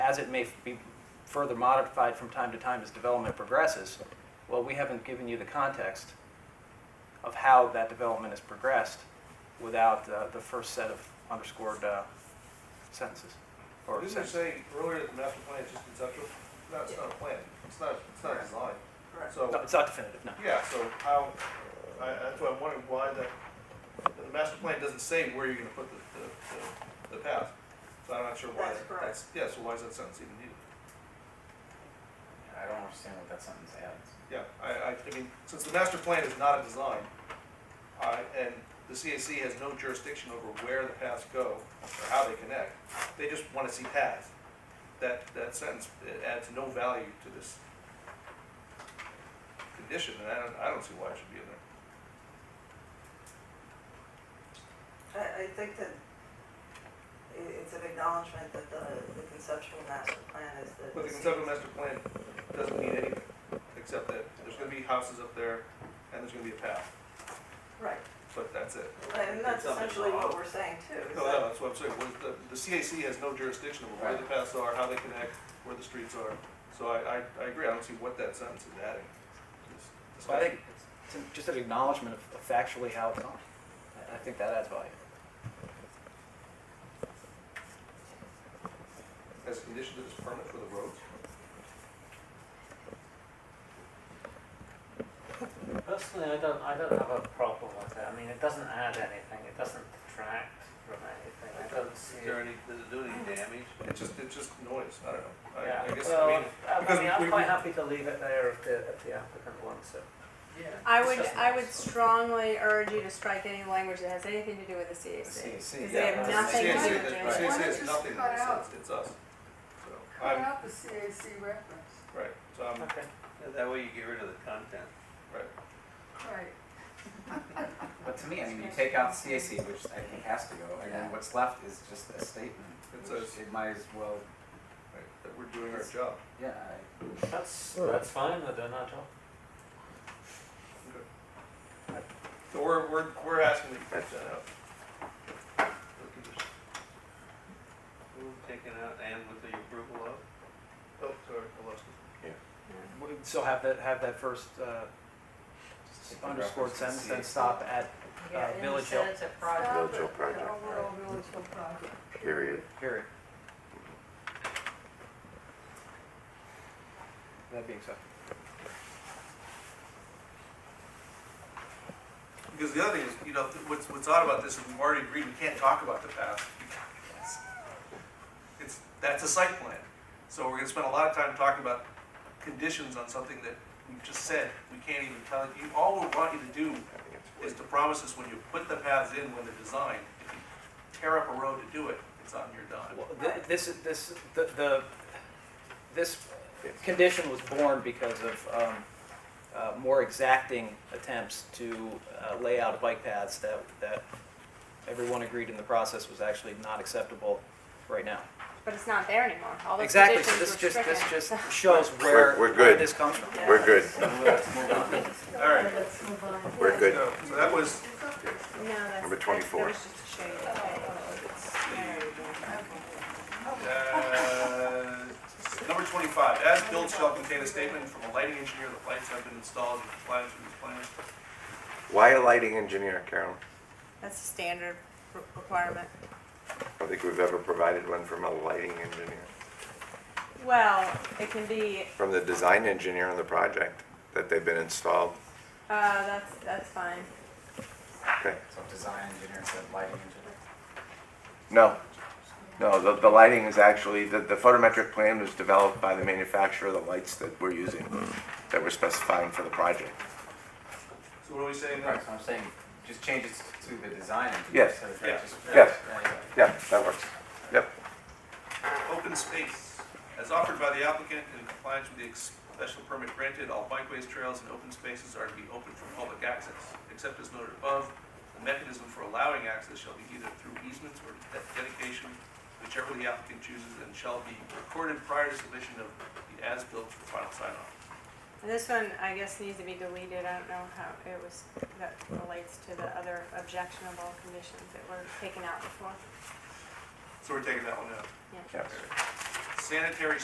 as it may be further modified from time to time as development progresses, well, we haven't given you the context of how that development has progressed without uh, the first set of underscored uh, sentences. or Didn't you sentences. say earlier that the master plan is just conceptual? No, it's not a plan, it's not, it's not a design. No, So, it's not definitive, no. yeah, so how, I, that's why I'm wondering why the, the master plan doesn't say where you're gonna put the, the, the, the path. So I'm not sure why. That's that- correct. Yeah, so why is that sentence even needed? I don't understand what that sentence adds. Yeah, I, I, I mean, since the master plan is not a design, uh, and the CAC has no jurisdiction over where the paths go or how they connect, they just wanna see paths. That, that sentence it adds no value to this condition, and I don't, I don't see why it should be in there. I, I think that i- it's an acknowledgement that the, the conceptual master plan is the. But the conceptual master plan doesn't mean anything, except that there's gonna be houses up there, and there's gonna be a path, Right, but that's it. and that's Something essentially what wrong. we're saying too. is No, that- no, that's what I'm saying, What the, the CAC has no jurisdiction over where the paths are, how they connect, where the streets are. So I, I, I agree, I don't see what that sentence is adding. It's- So I think it's an- just an acknowledgement of- of factually how it's done. I- I think that adds value. As a condition to this permit for the roads, Personally, I don't, I don't have a problem with it. I mean, it doesn't add anything. It doesn't detract from anything. I don't see Is it. there any, does it do any damage? it's just, it's just noise, I don't know. Yeah, I, I guess, I well, mean, I because mean, we- we- I'm quite happy to leave it there if the, if the applicant wants it. I It's would, just I nice. would strongly urge you to strike any language that has anything to do with the CAC. Because they have the nothing to CAC do that- with the it. CAC Why has don't you nothing, cut it's, out- us- it's us. So, Cut I'm, out the CAC reference, right, so I'm, Okay. That way you get rid of the content. right. right. But to me, I mean, you take out CAC, which I think has to go, and then what's left is just a statement. It which says- It might as well, Right, that we're doing our job. yeah, I- That's, that's fine. We're doing our job. So we're, we're, we're asking that you catch that out. Taken out and with the approval of? Oh, sorry, I lost it. We- So have that, have that first uh, Just underscored reference to sentence, then CAC. stop at Yeah, uh, in the Village Hill, sense of project. Stop Village Hill it, project, The overall Village Hill project. period. period. That being said. Because the other thing is, you know, th- what's, what's odd about this is we've already agreed we can't talk about the path. because It's, that's a site plan. So we're gonna spend a lot of time talking about conditions on something that we've just said, we can't even tell you. All we want you to do is to promise us when you put the paths in, when they're designed, if you tear up a road to do it, it's on your dime. Well, th- This, this, the, the, this condition was born because of um, uh, more exacting attempts to uh, lay out bike paths that, that everyone agreed in the process was actually not acceptable right now. But it's not there anymore. All those Exactly, so conditions were this just, stricken. this just shows where, we're where good. this comes from. We're good. All right, Let's move on. We're good. so so that was No, that's, that's, Number that 24. was just to show you. that- Uh, Number twenty-five, as built shall contain a statement from a lighting engineer that lights have been installed in compliance with these plans. Why a lighting engineer, Carolyn? That's a standard re- requirement. I don't think we've ever provided one from a lighting engineer, Well, it can be, from the design engineer on the project, that they've been installed. uh, that's, that's fine. Okay. so design engineer instead of lighting engineer. No, no, the, the lighting is actually, the, the photometric plan was developed by the manufacturer of the lights that we're using, that we're specifying for the project. So what are we saying Right, there? so I'm saying, just change it to the design engineer. Yes. so that Yeah. just- Yes. there you go. Yeah, that works. Yep. Open space, as offered by the applicant in compliance with the ex- special permit granted, all bikeways, trails, and open spaces are to be open for public access. Except as noted above, the mechanism for allowing access shall be either through easements or de- dedication, whichever the applicant chooses, and shall be recorded prior to submission of the as-built for final sign-off. And This one, I guess, needs to be deleted. I don't know how it was, that relates to the other objectionable conditions that were taken out before. So we're taking that one out. Yeah. Yes. sanitary